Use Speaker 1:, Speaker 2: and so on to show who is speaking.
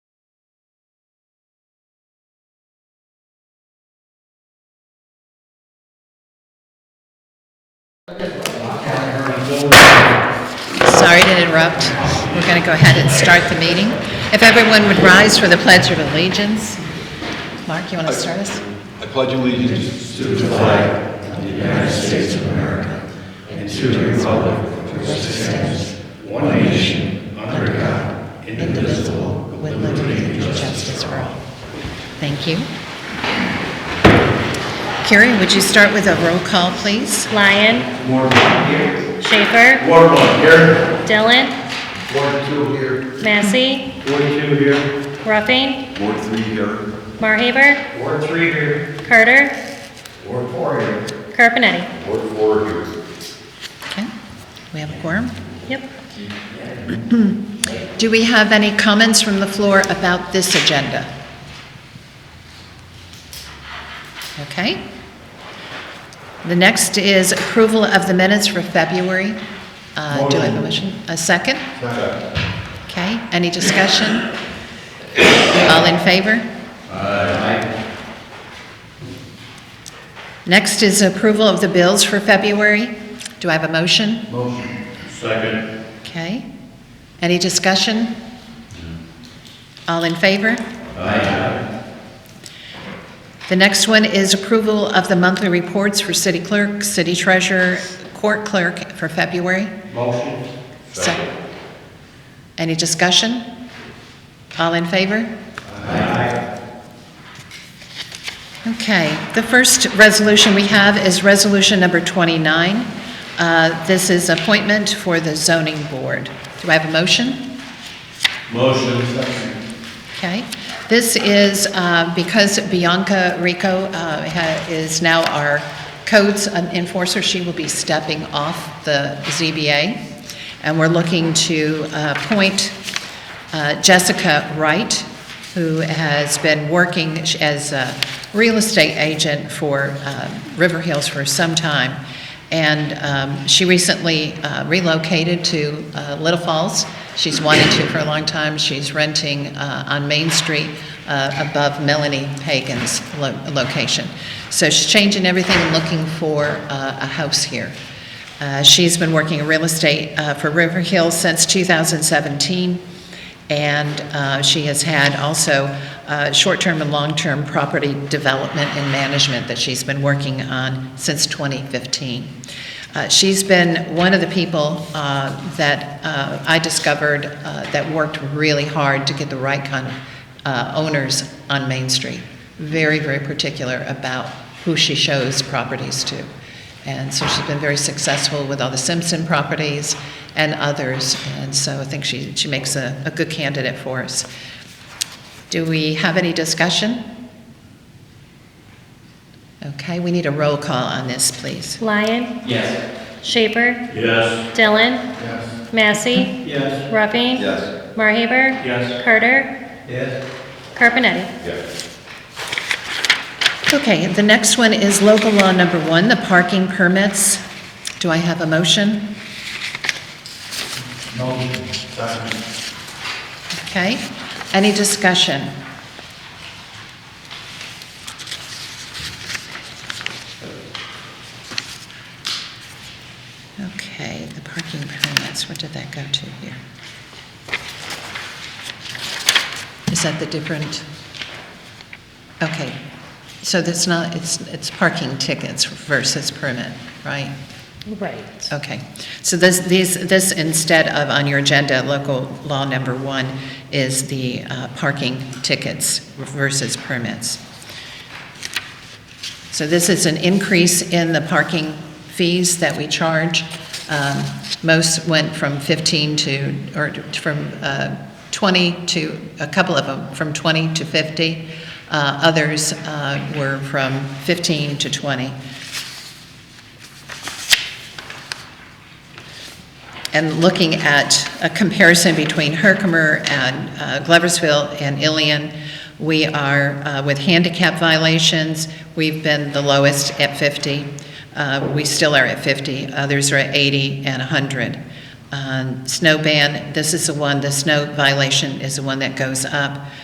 Speaker 1: Sorry to interrupt. We're going to go ahead and start the meeting. If everyone would rise for the Pledge of Allegiance. Mark, you want to start us?
Speaker 2: I pledge allegiance to
Speaker 1: Indivisible, with liberty and justice for all. Thank you. Carrie, would you start with a roll call, please?
Speaker 3: Lyon,
Speaker 2: Ward one here.
Speaker 3: Schaefer,
Speaker 2: Ward one here.
Speaker 3: Dillon,
Speaker 2: Ward two here.
Speaker 3: Massey,
Speaker 2: Ward two here.
Speaker 3: Ruffing,
Speaker 2: Ward three here.
Speaker 3: Marhaber,
Speaker 2: Ward three here.
Speaker 3: Carter,
Speaker 2: Ward four here.
Speaker 3: Carpenetti.
Speaker 2: Ward four here.
Speaker 1: Okay, we have a quorum.
Speaker 3: Yep.
Speaker 1: Do we have any comments from the floor about this agenda? Okay. The next is approval of the minutes for February. Uh, Do I have a motion? A second? Okay, any discussion? All in favor? Aye. Next is approval of the bills for February. Do I have a motion?
Speaker 2: Second.
Speaker 1: Okay. Any discussion? All in favor? The next one is approval of the monthly reports for city clerk, city treasurer, court clerk for February.
Speaker 2: Motion.
Speaker 1: Second. Any discussion? All in favor? Okay, the first resolution we have is Resolution Number 29. Uh, This is appointment for the zoning board. Do I have a motion?
Speaker 2: Motion. Second.
Speaker 1: Okay. This is uh, because Bianca Rico uh, ha- is now our codes enforcer. She will be stepping off the ZBA, and we're looking to uh, appoint uh, Jessica Wright, who has been working as a real estate agent for uh, River Hills for some time. And um, she recently uh, relocated to uh, Little Falls. She's wanted to for a long time. She's renting uh, on Main Street uh, above Melanie Pagan's lo- location. So she's changing everything and looking for uh, a house here. Uh, She's been working in real estate uh, for River Hills since 2017. And uh, she has had also uh, short-term and long-term property development and management that she's been working on since 2015. Uh, She's been one of the people uh, that uh, I discovered uh, that worked really hard to get the right kind of uh, owners on Main Street. Very, very particular about who she shows properties to. And so she's been very successful with all the Simpson properties and others, and so I think she, she makes a, a good candidate for us. Do we have any discussion? Okay, we need a roll call on this, please.
Speaker 3: Lyon,
Speaker 4: Yes.
Speaker 3: Schaefer,
Speaker 4: Yes.
Speaker 3: Dillon,
Speaker 2: Yes.
Speaker 3: Massey,
Speaker 4: Yes.
Speaker 3: Ruffing.
Speaker 2: Yes.
Speaker 3: Marhaber.
Speaker 4: Yes.
Speaker 3: Carter,
Speaker 4: Yes.
Speaker 3: Carpenetti.
Speaker 2: Yes.
Speaker 1: Okay, the next one is local law number one, the parking permits. Do I have a motion?
Speaker 2: Motion. Second.
Speaker 1: Okay, any discussion? Okay, the parking permits, what did that go to here? Is that the different? Okay, so that's not, it's, it's parking tickets versus permit, right?
Speaker 3: Right.
Speaker 1: Okay, so this, these, this instead of on your agenda, local law number one is the uh, parking tickets versus permits. So this is an increase in the parking fees that we charge. Um, Most went from 15 to, or from uh, 20 to, a couple of them, from 20 to 50. Uh, Others uh, were from 15 to 20. and looking at a comparison between Herkimer and uh, Gloversville and Ilion, we are, uh, with handicap violations, we've been the lowest at 50. Uh, We still are at 50. Others are at 80 and 100. Um, Snow ban, this is the one, the snow violation is the one that goes up.